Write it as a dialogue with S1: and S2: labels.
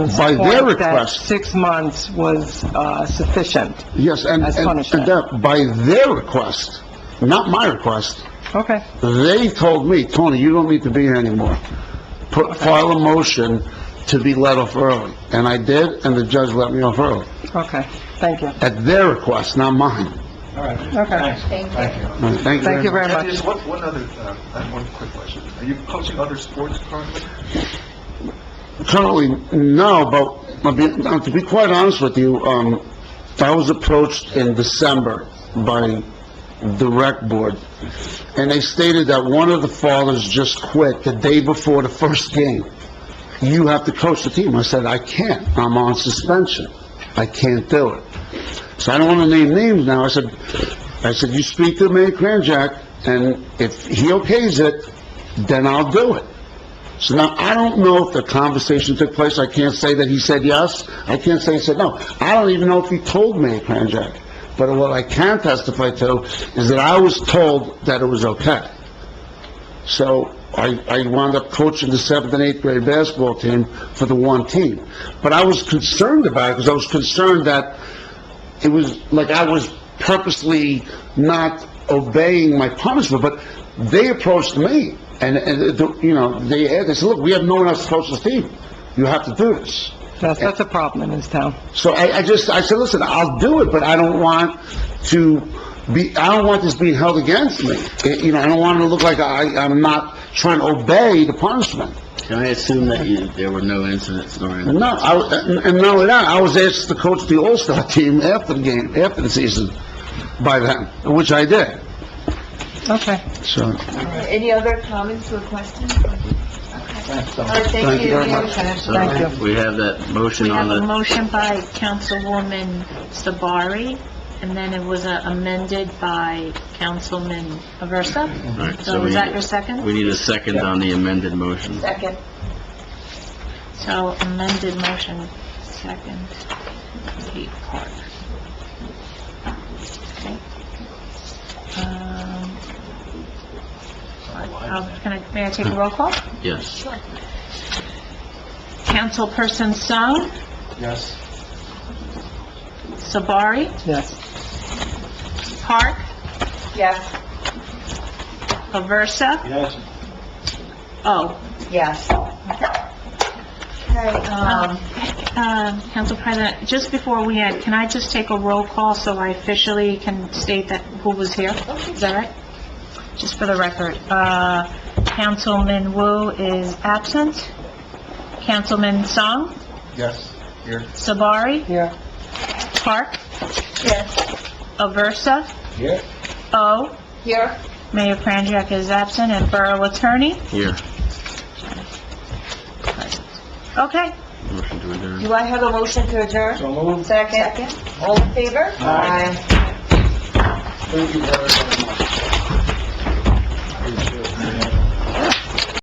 S1: was
S2: By
S1: the
S2: their
S1: point that
S2: request.
S1: six months was uh, sufficient.
S2: Yes, and,
S1: As
S2: and and
S1: punishment.
S2: that, by their request, not my request,
S1: Okay,
S2: they told me, Tony, you don't need to be here anymore. Put, file a motion to be let off early. And I did, and the judge let me off early,
S1: okay, thank you,
S2: at their request, not mine.
S3: All right.
S1: okay.
S3: Thanks.
S4: Thank you.
S2: All right, Thank you.
S1: Thank you
S2: much.
S1: very
S3: And
S1: much.
S3: just one, one other, uh, I have one quick question. Are you coaching other sports currently?
S2: Currently, no, but, I mean, uh, to be quite honest with you, um, I was approached in December by the rec board, and they stated that one of the fathers just quit the day before the first game. You have to coach the team. I said, I can't. I'm on suspension. I can't do it. So I don't want to name names now. I said, I said, you speak to Mayor Kranjak, and if he okays it, then I'll do it. So now, I don't know if the conversation took place, I can't say that he said yes, I can't say he said no. I don't even know if he told Mayor Kranjak, but what I can testify to is that I was told that it was okay. So I, I wound up coaching the seventh and eighth grade basketball team for the one team. But I was concerned about it, because I was concerned that it was, like, I was purposely not obeying my punishment, but they approached me, and, and, the- you know, they, they said, look, we have no one else to coach this team, you have to do this.
S1: That's, that's a problem in this town.
S2: So I, I just, I said, listen, I'll do it, but I don't want to be, I don't want this being held against me. It- You know, I don't want it to look like I, I'm not trying to obey the punishment.
S5: Can I assume that you, there were no incidents during?
S2: No, I, and- and not only that, I was asked to coach the All-Star team after the game, after the season by them, which I did,
S1: Okay,
S2: so.
S4: Any other comments or questions? Okay. All right,
S2: Thank
S4: thank
S2: you
S4: you.
S2: very much.
S5: So,
S1: Thank you.
S5: We have that motion
S6: We have
S5: on
S6: a
S5: the,
S6: motion by Councilwoman Sabari, and then it was uh, amended by Councilman Aversa.
S5: all right, so
S6: So
S5: we,
S6: is that your second?
S5: we need a second on the amended motion.
S4: Second.
S6: So amended motion, second. Kate Clark. Okay. Um, I'll- Can I, may I take a roll call?
S5: Yes.
S6: Councilperson Song,
S3: Yes.
S6: Sabari,
S1: yes,
S6: Park,
S4: Yes,
S6: Aversa,
S3: Yes.
S6: oh,
S4: yes. Okay, um,
S6: Um, uh, Council President, just before we end, can I just take a roll call so I officially can state that who was here? Is that right? Just for the record, uh, Councilman Wu is absent. Councilman Song,
S3: Yes. Here.
S6: Sabari,
S1: yeah,
S6: Park,
S4: yes,
S6: Aversa,
S3: Here.
S6: O.
S4: here,
S6: Mayor Pranjak is absent, and Borough Attorney.
S5: Here,
S6: Okay,
S5: motion to adjourn.
S4: do I have a motion to adjourn?
S3: So moved.
S4: Second. All in favor? Aye.
S3: Thank you very much.